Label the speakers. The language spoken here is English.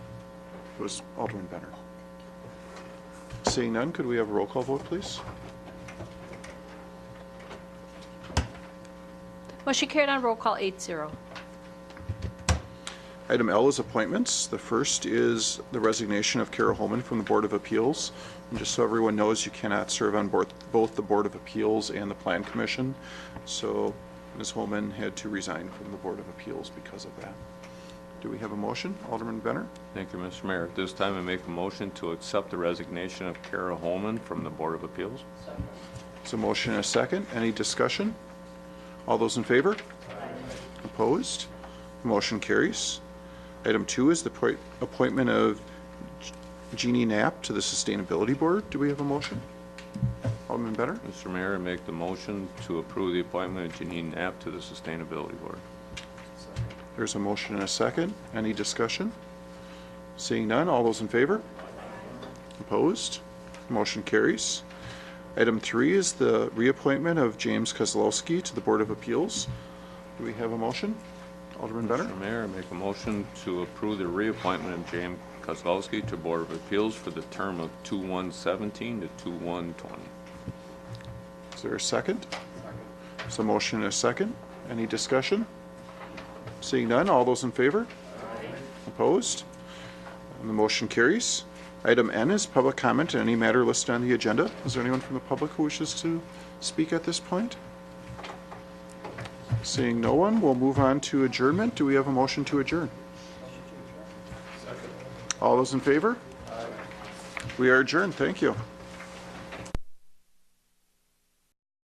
Speaker 1: It was Alderman Benner. Seeing none, could we have a roll call vote, please?
Speaker 2: Motion carried on roll call eight zero.
Speaker 1: Item L is appointments. The first is the resignation of Kara Holman from the Board of Appeals. And just so everyone knows, you cannot serve on board, both the Board of Appeals and the Plan Commission. So Ms. Holman had to resign from the Board of Appeals because of that. Do we have a motion? Alderman Benner?
Speaker 3: Thank you, Mr. Mayor. At this time, I make a motion to accept the resignation of Kara Holman from the Board of Appeals.
Speaker 1: It's a motion and a second. Any discussion? All those in favor? Opposed? Motion carries. Item two is the appoint- appointment of Jeannie Knapp to the Sustainability Board. Do we have a motion? Alderman Benner?
Speaker 3: Mr. Mayor, I make the motion to approve the appointment of Janine Knapp to the Sustainability Board.
Speaker 1: There's a motion and a second. Any discussion? Seeing none, all those in favor? Opposed? Motion carries. Item three is the reappointment of James Kozlowski to the Board of Appeals. Do we have a motion? Alderman Benner?
Speaker 3: Mr. Mayor, I make a motion to approve the reappointment of James Kozlowski to Board of Appeals for the term of 2/1/17 to 2/1/20.
Speaker 1: Is there a second? There's a motion and a second. Any discussion? Seeing none, all those in favor? Opposed? And the motion carries. Item N is public comment on any matter listed on the agenda. Is there anyone from the public who wishes to speak at this point? Seeing no one, we'll move on to adjournment. Do we have a motion to adjourn? All those in favor? We are adjourned. Thank you.